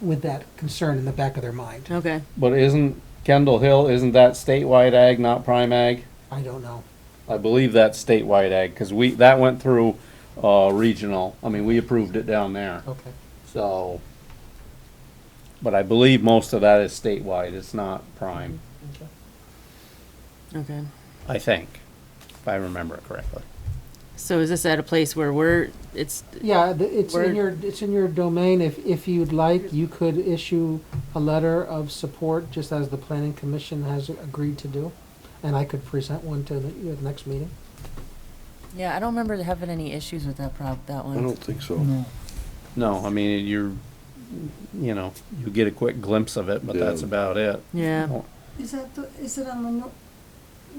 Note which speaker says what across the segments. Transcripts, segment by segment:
Speaker 1: with that concern in the back of their mind.
Speaker 2: Okay.
Speaker 3: But isn't Kendall Hill, isn't that statewide ag, not prime ag?
Speaker 1: I don't know.
Speaker 3: I believe that's statewide ag, cause we, that went through, uh, regional, I mean, we approved it down there,
Speaker 1: Okay.
Speaker 3: so. But I believe most of that is statewide, it's not prime,
Speaker 2: Okay.
Speaker 3: I think, if I remember it correctly.
Speaker 2: So is this at a place where we're? It's
Speaker 1: Yeah, the- it's in
Speaker 2: Word.
Speaker 1: your, it's in your domain. If, if you'd like, you could issue a letter of support, just as the planning commission has agreed to do. And I could present one to the, the next meeting.
Speaker 4: Yeah, I don't remember having any issues with that prop, that
Speaker 5: I don't
Speaker 4: one.
Speaker 5: think so.
Speaker 3: No, I mean, you're, you know, you get a quick glimpse of it, but
Speaker 5: Yeah.
Speaker 3: that's about it.
Speaker 2: yeah.
Speaker 6: Is that the, is it on the nor-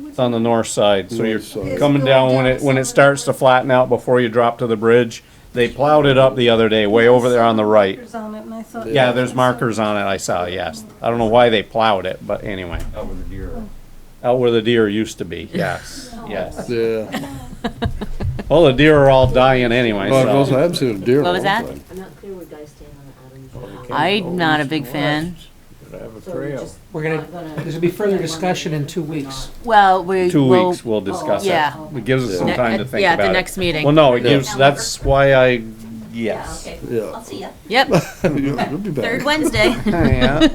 Speaker 3: It's on the north side, so you're
Speaker 5: North side.
Speaker 6: It's
Speaker 3: coming
Speaker 6: going
Speaker 3: down when
Speaker 6: down
Speaker 3: it, when it
Speaker 6: some-
Speaker 3: starts to flatten out before you drop to the bridge. They plowed it up the other day, way over there on the right.
Speaker 6: Markers on it, and I thought-
Speaker 3: Yeah, there's markers on it, I saw, yes. I don't know why they plowed it, but anyway. Out where the deer. Out where the deer used to be, yes, yes.
Speaker 5: Yeah.
Speaker 3: Well, the deer are all dying anyway,
Speaker 5: Well, it goes, I
Speaker 3: so.
Speaker 5: haven't seen a deer in a
Speaker 4: What was
Speaker 5: long
Speaker 4: that?
Speaker 5: time.
Speaker 7: I'm not clear where guys stand on Adams.
Speaker 4: I'm not a big fan.
Speaker 1: We're gonna, there's gonna be further discussion in two weeks.
Speaker 4: Well, we.
Speaker 3: Two
Speaker 4: we'll-
Speaker 3: weeks, we'll discuss it.
Speaker 4: Yeah.
Speaker 3: It gives us some
Speaker 5: Yeah.
Speaker 3: time to think
Speaker 2: yeah, at
Speaker 3: about
Speaker 2: the
Speaker 3: it.
Speaker 2: next meeting.
Speaker 3: Well, no, it
Speaker 5: Yeah.
Speaker 3: gives, that's why I,
Speaker 7: Yeah,
Speaker 3: yes.
Speaker 7: okay.
Speaker 5: Yeah.
Speaker 7: I'll see ya.
Speaker 2: Yep.
Speaker 5: You'll be back.
Speaker 7: Third Wednesday.
Speaker 3: Yeah.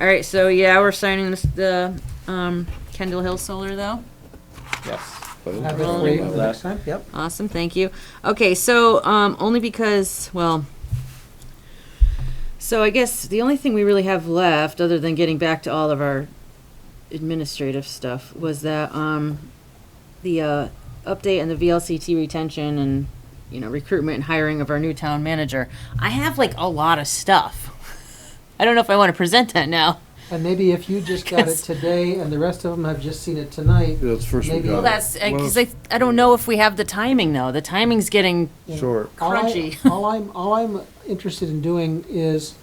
Speaker 2: All right. So yeah, we're signing this, the um, Kendall Hill Solar though.
Speaker 3: Yes.
Speaker 1: Have it
Speaker 5: Well,
Speaker 1: for you the next time, yep.
Speaker 2: Awesome. Thank you. Okay. So um, only because well. So I guess the only thing we really have left, other than getting back to all of our administrative stuff, was that um, the uh, update and the VLCT retention and you know recruitment and hiring of our new town manager. I have like a lot of stuff. I don't know if I want to present that now.
Speaker 1: And maybe if you just got it
Speaker 2: 'Cause-
Speaker 1: today and the rest of them have just seen it tonight,
Speaker 5: That's the first we
Speaker 1: Maybe- Well,
Speaker 5: got.
Speaker 2: That's
Speaker 5: Well,
Speaker 2: because I, I don't know if we have the timing though. The timing's getting
Speaker 5: Short.
Speaker 1: All I-
Speaker 2: Crunchy.
Speaker 1: All I'm, all I'm interested in doing is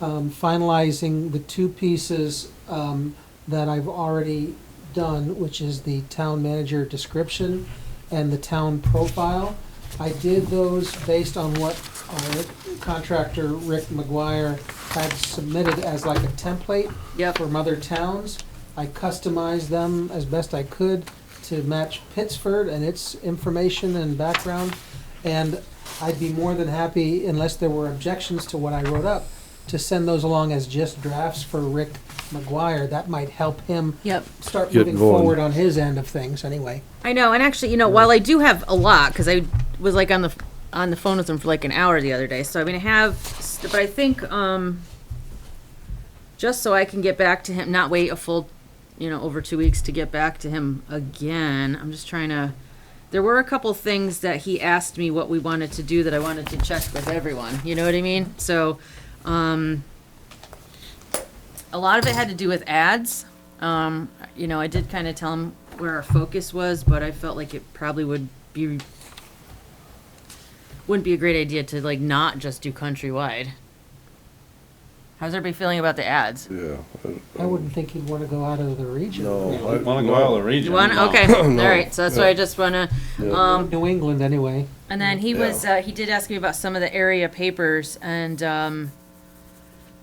Speaker 1: um, finalizing the two pieces um, that I've already done, which is the town manager description and the town profile. I did those based on what our contractor, Rick McGuire, had submitted as like a template
Speaker 2: yep
Speaker 1: from other towns. I customized them as best I could to match Pittsford and its information and background. And I'd be more than happy, unless there were objections to what I wrote up, to send those along as just drafts for Rick McGuire. That might help him
Speaker 2: yep.
Speaker 1: start
Speaker 5: Get
Speaker 1: moving
Speaker 5: going.
Speaker 1: forward on his end of things, anyway.
Speaker 2: I know, and actually, you know, while I do have a lot, because I was like on the on the phone with him for like an hour the other day, so I mean, I have, st- but I think um, just so I can get back to him, not wait a full, you know, over two weeks to get back to him again. I'm just trying to. There were a couple things that he asked me what we wanted to do that I wanted to check with everyone. You know what I mean? So, um, a lot of it had to do with ads. Um, you know, I did kind of tell him where our focus was, but I felt like it probably would be wouldn't be a great idea to like not just do countrywide. How's everybody feeling about the ads?
Speaker 5: Yeah.
Speaker 1: I wouldn't think he'd want to go out of the region.
Speaker 5: No. I-
Speaker 3: Wanna go out of the
Speaker 2: You
Speaker 3: region?
Speaker 2: want?
Speaker 3: No.
Speaker 2: Okay, all right. So that's why I just wanna.
Speaker 5: Yeah.
Speaker 2: Um,
Speaker 1: New England, anyway.
Speaker 2: And then he was, uh, he did ask me about some of the area papers and, um,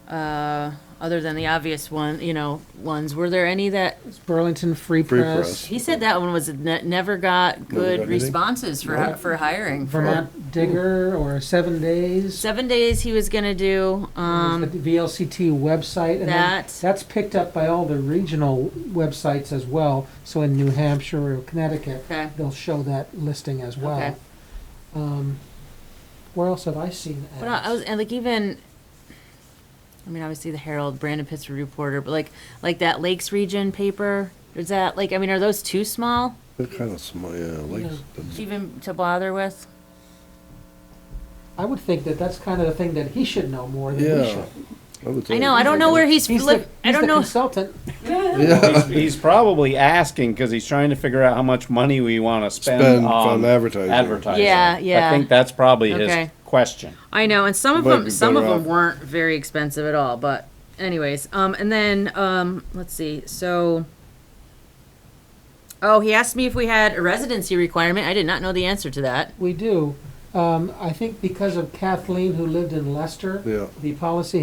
Speaker 2: uh, other than the obvious one, you know, ones, were there any that,
Speaker 1: It's Burlington Free
Speaker 5: Free
Speaker 1: Press,
Speaker 5: Press.
Speaker 2: he said that one was, ne- never got
Speaker 5: got
Speaker 2: good
Speaker 5: anything?
Speaker 2: responses for, for hiring.
Speaker 1: Vermont Digger, or Seven Days.
Speaker 2: Seven days he was gonna do, um,
Speaker 1: There's the VLCT website, and then
Speaker 2: that-
Speaker 1: that's picked up by all the regional websites as well. So in New Hampshire or Connecticut,
Speaker 2: Okay.
Speaker 1: they'll show that listing as
Speaker 2: Okay.
Speaker 1: well. Um, Where else have I seen
Speaker 2: But I, I was
Speaker 1: ads?
Speaker 2: and like even. I mean, obviously the Herald, Brandon Pittsburgh Reporter, but like like that Lakes Region paper. Is that like I mean, are those too small
Speaker 5: They're kind of small, yeah, like,
Speaker 2: even to bother with?
Speaker 1: I would think that that's kind of the thing that he should know more than we
Speaker 5: yeah.
Speaker 1: should.
Speaker 5: would
Speaker 2: I know.
Speaker 5: think.
Speaker 2: I don't know where he's.
Speaker 1: He's
Speaker 2: flip-
Speaker 1: the,
Speaker 2: I
Speaker 1: he's
Speaker 2: don't
Speaker 1: the
Speaker 2: know.
Speaker 1: consultant.
Speaker 5: Yeah.
Speaker 3: He's, he's probably asking because he's trying to figure out how much money we want to spend,
Speaker 5: Spend
Speaker 3: on
Speaker 5: on advertising.
Speaker 3: advertising.
Speaker 2: Yeah, yeah.
Speaker 3: I think that's probably his
Speaker 2: Okay.
Speaker 3: question.
Speaker 2: I know, and some of
Speaker 5: Might
Speaker 2: them,
Speaker 5: be
Speaker 2: some of
Speaker 5: better
Speaker 2: them
Speaker 5: off.
Speaker 2: weren't very expensive at all. But anyways, um, and then um, let's see. So, oh, he asked me if we had a residency requirement. I did not know the answer to that.
Speaker 1: We do. Um, I think because of Kathleen, who lived in Leicester,
Speaker 5: Yeah.
Speaker 1: the policy